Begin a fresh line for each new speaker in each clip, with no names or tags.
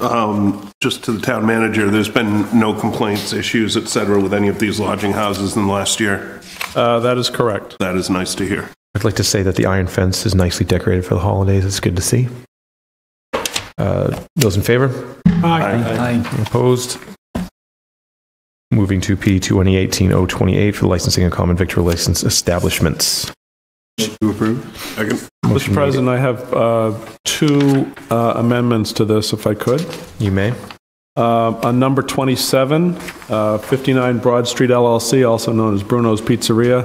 um, just to the town manager, there's been no complaints, issues, et cetera, with any of these lodging houses in the last year.
Uh, That is correct.
That is nice to hear.
I'd like to say that the iron fence is nicely decorated for the holidays. It's good to see. Uh, Those in favor? Opposed? Moving to P 2018-028 for the licensing of common victor license establishments.
To approve? Second.
Mr.
Motion made.
President, I have uh, two uh, amendments to this, if I could.
You may.
Uh, On number 27, uh, 59 Broad Street LLC, also known as Bruno's Pizzeria,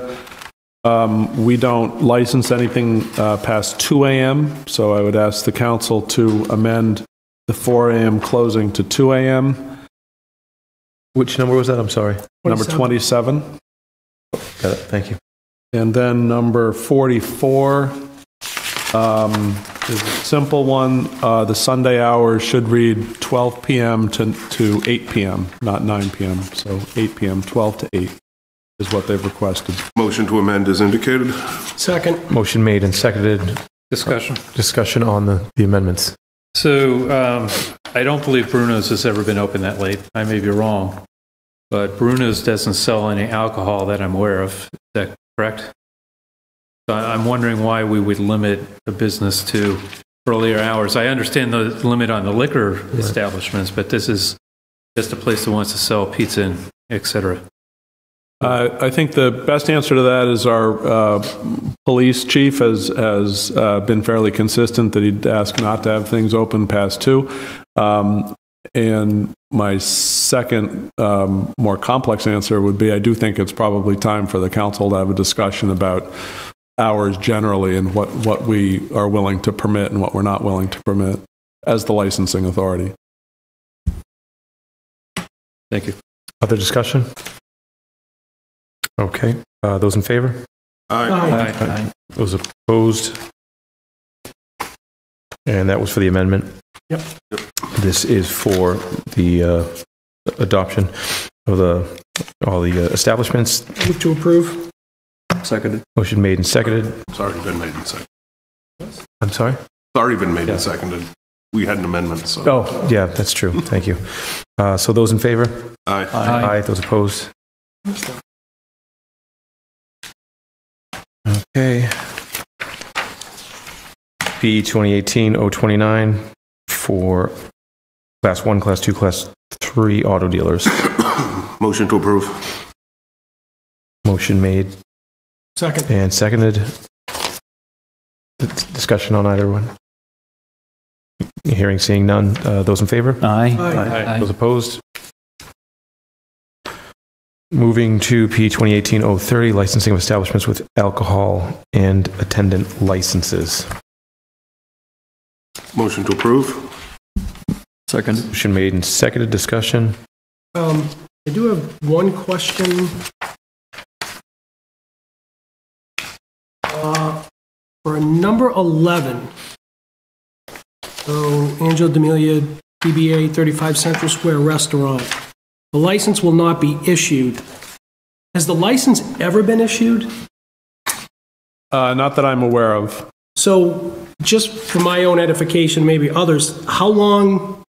um, we don't license anything uh, past 2 AM, so I would ask the council to amend the 4 AM closing to 2 AM.
Which number was that? I'm sorry.
Number 27.
Got it. Thank you.
And then number 44 um, is a simple one. Uh, The Sunday hours should read 12 PM to to 8 PM, not 9 PM. So 8 PM, 12 to 8 is what they've requested.
Motion to amend is indicated.
Second.
Motion made and seconded.
Discussion.
Discussion on the the amendments.
So um, I don't believe Bruno's has ever been open that late. I may be wrong, but Bruno's doesn't sell any alcohol that I'm aware of. Is that correct? So I- I'm wondering why we would limit a business to earlier hours. I understand the limit on the liquor establishments, but this is just a place that wants to sell pizza and et cetera.
Uh, I think the best answer to that is our uh, police chief has, has uh, been fairly consistent that he'd ask not to have things open past two. Um, And my second, um, more complex answer would be, I do think it's probably time for the council to have a discussion about hours generally and what, what we are willing to permit and what we're not willing to permit as the licensing authority.
Thank you.
Other discussion? Okay. Uh, Those in favor?
Aye.
Aye.
Those opposed? And that was for the amendment?
Yep.
This is for the uh, adoption of the, all the uh, establishments.
Move to approve.
Seconded.
Motion made and seconded.
It's already been made and seconded.
I'm sorry?
It's already been made and seconded. We had an amendment, so.
Oh, yeah, that's true. Thank you. Uh, So those in favor?
Aye.
Aye.
Those opposed? Okay. P 2018-029 for Class 1, Class 2, Class 3 auto dealers.
Motion to approve.
Motion made
Second.
and seconded. D- Discussion on either one? Hearing, seeing none. Uh, Those in favor?
Aye.
Those opposed? Moving to P 2018-030, licensing of establishments with alcohol and attendant licenses.
Motion to approve.
Second.
Motion made and seconded, discussion.
Um, I do have one question. Uh, For number 11, so Angelo D'Amelia, DBA 35 Central Square Restaurant, the license will not be issued. Has the license ever been issued?
Uh, Not that I'm aware of.
So, just for my own edification, maybe others, how long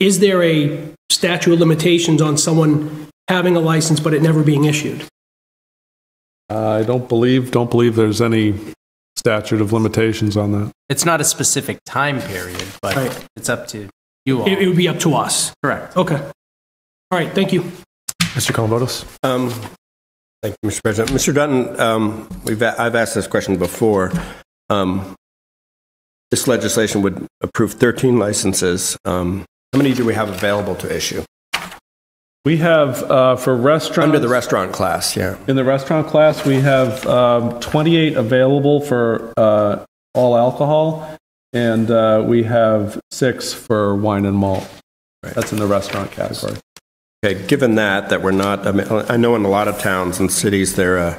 is there a statute of limitations on someone having a license but it never being issued?
Uh, I don't believe, don't believe there's any statute of limitations on that.
It's not a specific time period, but
Right.
it's up to you all.
It it would be up to us.
Correct.
Okay. All right, thank you.
Mr. Columbotus?
Um, Thank you, Mr. President. Mr. Dutton, um, we've, a- I've asked this question before. Um, This legislation would approve 13 licenses. Um, How many do we have available to issue?
We have, uh, for restaurants.
Under the restaurant class, yeah.
In the restaurant class, we have um, 28 available for uh, all alcohol, and uh, we have six for wine and malt. That's in the restaurant category.
Okay, given that, that we're not, I mean, I know in a lot of towns and cities, they're, uh,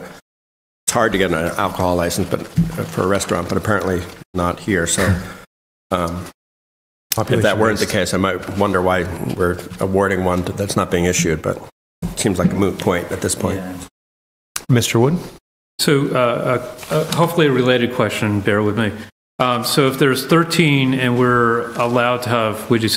it's hard to get an alcohol license but, uh, for a restaurant, but apparently not here, so um, if that weren't the case, I might wonder why we're awarding one that's not being issued, but it seems like a moot point at this point.
Mr. Wood?
So uh, a- a- hopefully a related question, bear with me. Um, So if there's 13 and we're allowed to have, would you say